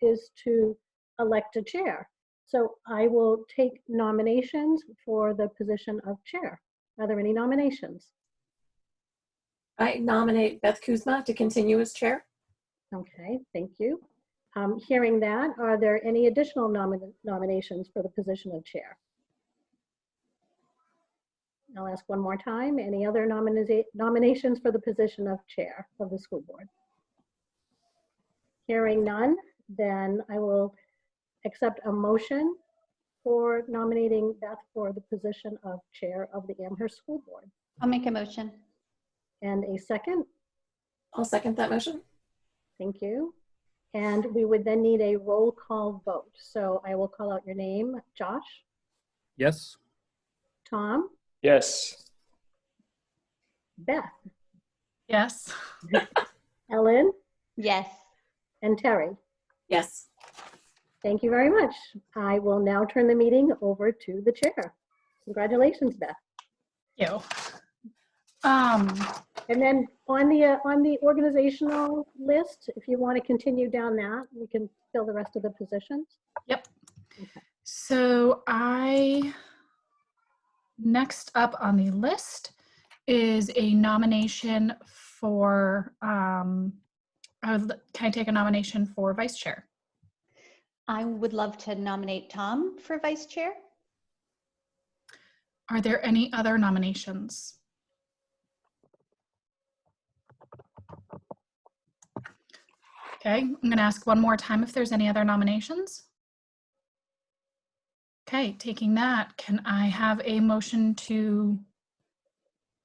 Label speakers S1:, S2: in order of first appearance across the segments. S1: is to elect a chair. So I will take nominations for the position of chair. Are there any nominations?
S2: I nominate Beth Kuzma to continue as chair.
S1: Okay, thank you. Um, Hearing that, are there any additional nomin- nominations for the position of chair? I'll ask one more time. Any other nominiza- nominations for the position of chair of the school board? Hearing none, then I will accept a motion for nominating Beth for the position of chair of the Amherst School Board.
S3: I'll make a motion.
S1: And a second?
S2: I'll second that motion.
S1: Thank you. And we would then need a roll call vote. So I will call out your name, Josh,
S4: Yes.
S1: Tom,
S5: Yes.
S1: Beth,
S6: Yes.
S1: Ellen,
S3: Yes.
S1: and Terry.
S2: Yes.
S1: Thank you very much. I will now turn the meeting over to the chair. Congratulations, Beth.
S6: You. Um,
S1: And then on the, uh, on the organizational list, if you want to continue down that, we can fill the rest of the positions.
S6: so I, next up on the list is a nomination for, um, I would l- can I take a nomination for vice chair?
S3: I would love to nominate Tom for vice chair.
S6: Are there any other nominations? Okay, I'm going to ask one more time if there's any other nominations. Okay, taking that, can I have a motion to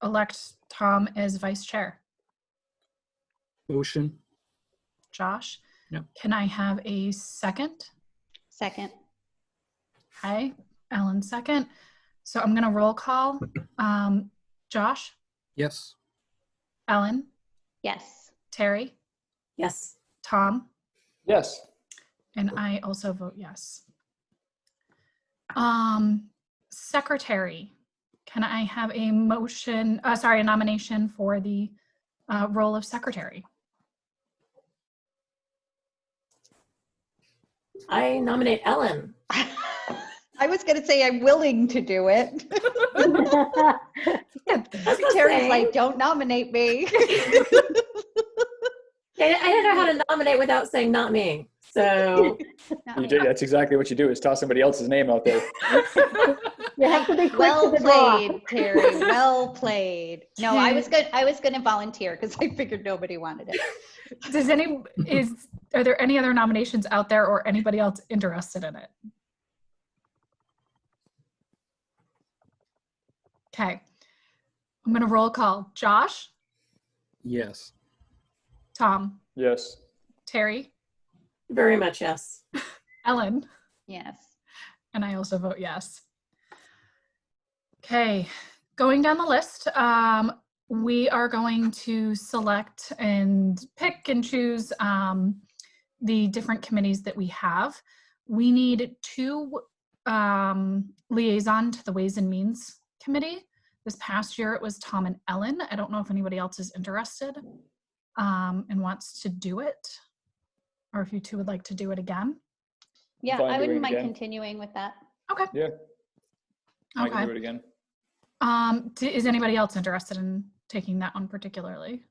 S6: elect Tom as vice chair?
S4: Motion.
S6: Josh?
S4: Yep.
S6: Can I have a second?
S3: Second.
S6: Hi, Ellen, second. So I'm going to roll call. Um, Josh,
S4: Yes.
S6: Ellen,
S3: Yes.
S6: Terry?
S2: Yes.
S6: Tom?
S5: Yes.
S6: And I also vote yes. Um, secretary, can I have a motion, uh, sorry, a nomination for the uh, role of secretary?
S2: I nominate Ellen.
S3: I was going to say I'm willing to do it.
S2: That's the
S3: Terry's
S2: thing.
S3: like, don't nominate me.
S2: I I didn't know how to nominate without saying not me. So
S3: Not
S5: You
S3: me.
S5: did. That's exactly what you do is toss somebody else's name out there.
S1: You have to be quick to
S3: well
S1: the draw.
S3: played, Terry. Well played. No, I was good. I was going to volunteer because I figured nobody wanted it.
S6: Does any, is, are there any other nominations out there or anybody else interested in it? Okay. I'm going to roll call. Josh,
S4: Yes.
S6: Tom,
S5: Yes.
S6: Terry,
S2: very much yes.
S6: Ellen.
S3: Yes.
S6: And I also vote yes. Okay, going down the list, um, we are going to select and pick and choose um, the different committees that we have. We need two um, liaison to the Ways and Means Committee. This past year, it was Tom and Ellen. I don't know if anybody else is interested um, and wants to do it, or if you two would like to do it again.
S3: Yeah,
S5: Fine
S3: I
S5: doing it
S3: wouldn't mind
S5: again.
S3: continuing with that.
S5: Yeah. I
S6: Okay.
S5: can do it again.
S6: Um, d- is anybody else interested in taking that one particularly?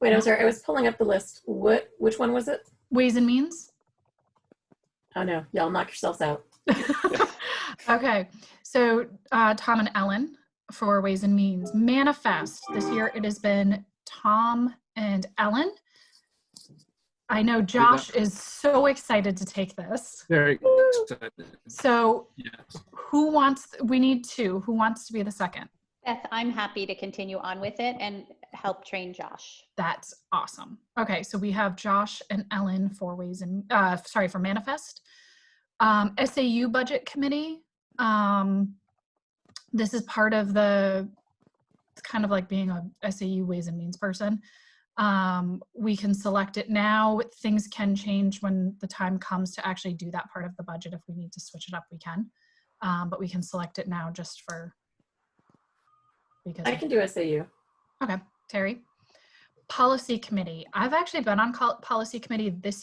S2: Wait, I'm sorry. I was pulling up the list. What? Which one was it?
S6: Ways and means?
S2: Oh no, y'all knock yourselves out.
S6: okay, so uh, Tom and Ellen for Ways and Means. Manifest, this year it has been Tom and Ellen. I know Josh is so excited to take this.
S4: Very excited.
S6: So
S4: Yes.
S6: who wants, we need two. Who wants to be the second?
S3: Beth, I'm happy to continue on with it and help train Josh.
S6: That's awesome. Okay, so we have Josh and Ellen for ways and uh, sorry for manifest. Um, SAU budget committee. Um, this is part of the. It's kind of like being a SAU ways and means person. Um, we can select it now. Things can change when the time comes to actually do that part of the budget. If we need to switch it up, we can. Um, but we can select it now just for. Because
S2: I can do SAU.
S6: Okay, Terry. Policy Committee. I've actually been on col- Policy Committee this